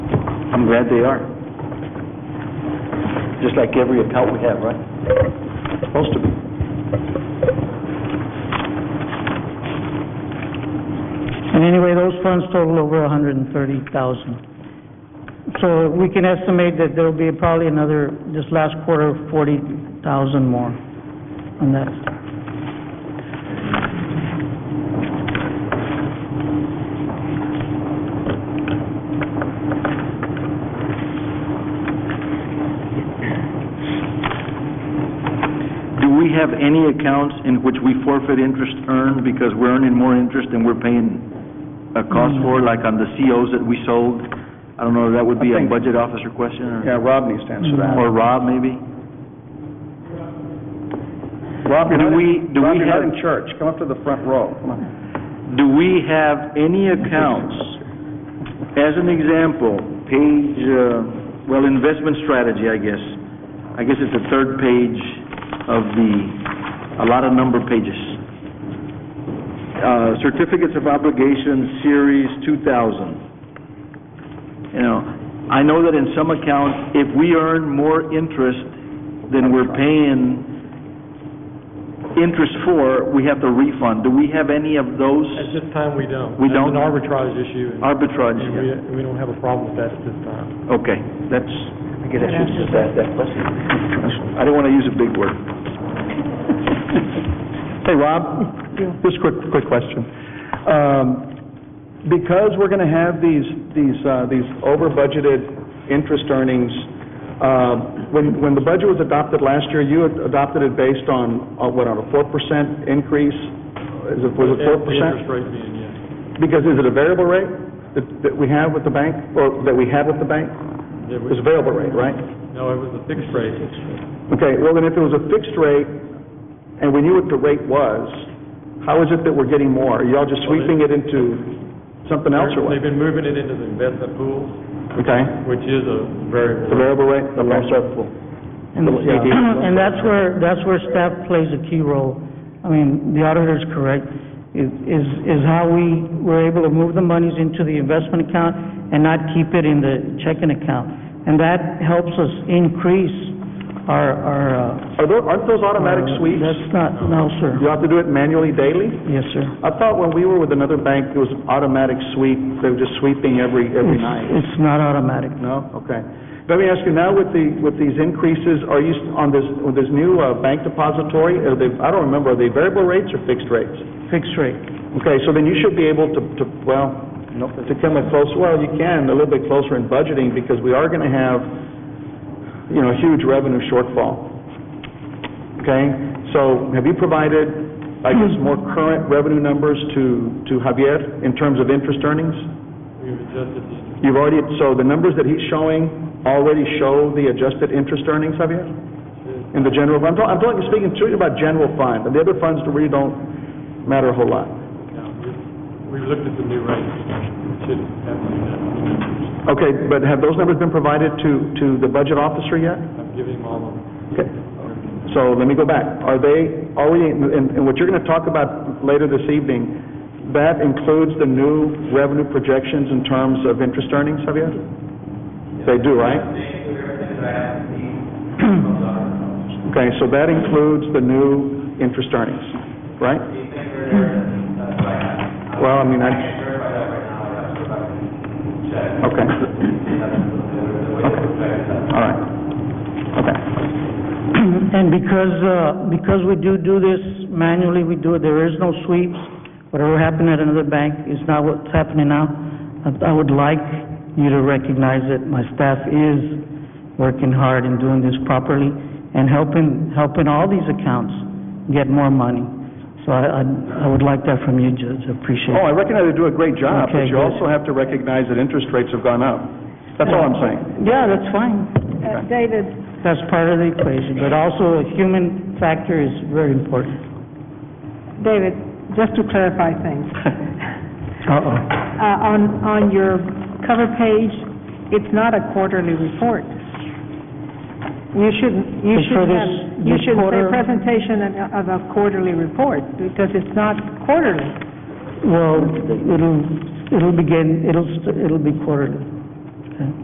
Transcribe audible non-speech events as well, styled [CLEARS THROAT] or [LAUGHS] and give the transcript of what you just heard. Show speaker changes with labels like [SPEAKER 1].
[SPEAKER 1] I'm glad they are. Just like every account we have, right? Supposed to be.
[SPEAKER 2] And anyway, those funds total over a hundred and thirty thousand. So we can estimate that there'll be probably another, this last quarter, forty thousand more on that.
[SPEAKER 1] Do we have any accounts in which we forfeit interest earned because we're earning more interest than we're paying a cost for, like on the COs that we sold? I don't know, that would be
[SPEAKER 3] I
[SPEAKER 1] a
[SPEAKER 3] think-
[SPEAKER 1] budget officer question or,
[SPEAKER 3] Yeah, Rob needs to answer that.
[SPEAKER 1] or Rob maybe?
[SPEAKER 3] Rob, you're
[SPEAKER 1] do
[SPEAKER 3] not in-
[SPEAKER 1] we- do
[SPEAKER 3] Rob,
[SPEAKER 1] we
[SPEAKER 3] you're not
[SPEAKER 1] have-
[SPEAKER 3] in church, come up to the front row, come on.
[SPEAKER 1] Do we have any accounts, as an example, page, uh, well, investment strategy, I guess. I guess it's the third page of the, a lot of number pages. Uh, Certificates of Obligation, Series 2000. You know, I know that in some accounts, if we earn more interest than we're paying interest for, we have to refund. Do we have any of those?
[SPEAKER 4] At this time, we don't.
[SPEAKER 1] We don't?
[SPEAKER 4] It's an arbitrage issue, and-
[SPEAKER 1] Arbitrage,
[SPEAKER 4] and
[SPEAKER 1] yeah.
[SPEAKER 4] we, we don't have a problem with that at this time.
[SPEAKER 1] Okay, that's, I guess I should have just asked that question. I don't want to use a big word.
[SPEAKER 3] Hey, Rob, just a quick, quick question. Um, Because we're going to have these, these, uh, these over-budgeted interest earnings, uh, when, when the budget was adopted last year, you had adopted it based on, on what, on a four percent increase? Is it, was it four
[SPEAKER 4] The
[SPEAKER 3] percent?
[SPEAKER 4] Interest rate being, yes.
[SPEAKER 3] Because is it a variable rate that, that we have with the bank, or that we had with the bank?
[SPEAKER 4] It was-
[SPEAKER 3] It's a variable rate, right?
[SPEAKER 4] No, it was a fixed rate.
[SPEAKER 3] Okay, well, then if it was a fixed rate, and we knew what the rate was, how is it that we're getting more? Are y'all just sweeping it into something else or what?
[SPEAKER 4] They've been moving it into the investment pools,
[SPEAKER 3] Okay,
[SPEAKER 4] which is a variable.
[SPEAKER 3] the variable rate?
[SPEAKER 1] The
[SPEAKER 3] Okay.
[SPEAKER 1] loss of-
[SPEAKER 2] And
[SPEAKER 3] Yeah.
[SPEAKER 2] and that's where, that's where staff plays a key role. I mean, the auditor's correct, is, is is how we were able to move the monies into the investment account and not keep it in the checking account. And that helps us increase our, our, uh...
[SPEAKER 3] Are tho- Aren't those automatic
[SPEAKER 2] uh,
[SPEAKER 3] sweeps?
[SPEAKER 2] That's not, no, sir.
[SPEAKER 3] You have to do it manually daily?
[SPEAKER 2] Yes, sir.
[SPEAKER 3] I thought when we were with another bank, it was an automatic sweep, they were just sweeping
[SPEAKER 2] [LAUGHS]
[SPEAKER 3] every, every
[SPEAKER 2] It's,
[SPEAKER 3] night.
[SPEAKER 2] it's not automatic.
[SPEAKER 3] No? Okay. Let me ask you, now with the, with these increases, are you, s- on this, with this new uh, bank depository, are they, I don't remember, are they variable rates or fixed rates?
[SPEAKER 2] Fixed rate.
[SPEAKER 3] Okay, so then you should be able to, to, well, to come in close, well, you can, a little bit closer in budgeting, because we are gonna have, you know, a huge revenue shortfall. Okay, so have you provided, I guess, more current revenue numbers to, to Javier in terms of interest earnings?
[SPEAKER 4] We've adjusted the interest.
[SPEAKER 3] You've already, so the numbers that he's showing already show the adjusted interest earnings, Javier? In the general, I'm talking, I'm talking, speaking to you about general fund, and the other funds really don't matter a whole lot.
[SPEAKER 4] Now, we- We've looked at the new rate, it should have the investment numbers.
[SPEAKER 3] Okay, but have those numbers been provided to, to the budget officer yet?
[SPEAKER 4] I've given him all of them.
[SPEAKER 3] Okay, so let me go back. Are they already, and, and what you're gonna talk about later this evening, that includes the new revenue projections in terms of interest earnings, Javier? They do, right? [CLEARS THROAT] Okay, so that includes the new interest earnings, right? Well, I mean, I... Okay. Okay. All right. Okay.
[SPEAKER 2] [CLEARS THROAT] And because, uh, because we do do this manually, we do it, there is no sweeps. Whatever happened at another bank is not what's happening now. I- I would like you to recognize that my staff is working hard and doing this properly and helping, helping all these accounts get more money. So I, I- I would like that from you, Judge, I appreciate
[SPEAKER 3] Oh,
[SPEAKER 2] it.
[SPEAKER 3] I recognize they do a great job, but
[SPEAKER 2] Okay,
[SPEAKER 3] you
[SPEAKER 2] good.
[SPEAKER 3] also have to recognize that interest rates have gone up. That's all I'm saying.
[SPEAKER 2] Oh, Yeah, that's fine.
[SPEAKER 5] Uh, David,
[SPEAKER 2] That's part of the equation, but also a human factor is very important.
[SPEAKER 5] David, just to clarify
[SPEAKER 2] [LAUGHS]
[SPEAKER 5] things.
[SPEAKER 2] Uh-oh.
[SPEAKER 5] Uh, On, on your cover page, it's not a quarterly report. You shouldn't, you
[SPEAKER 2] It's for
[SPEAKER 5] shouldn't
[SPEAKER 2] this-
[SPEAKER 5] have, you
[SPEAKER 2] this
[SPEAKER 5] shouldn't say
[SPEAKER 2] quarter-
[SPEAKER 5] presentation of of a quarterly report, because it's not quarterly.
[SPEAKER 2] Well, it'll, it'll begin, it'll, st- it'll be quarterly.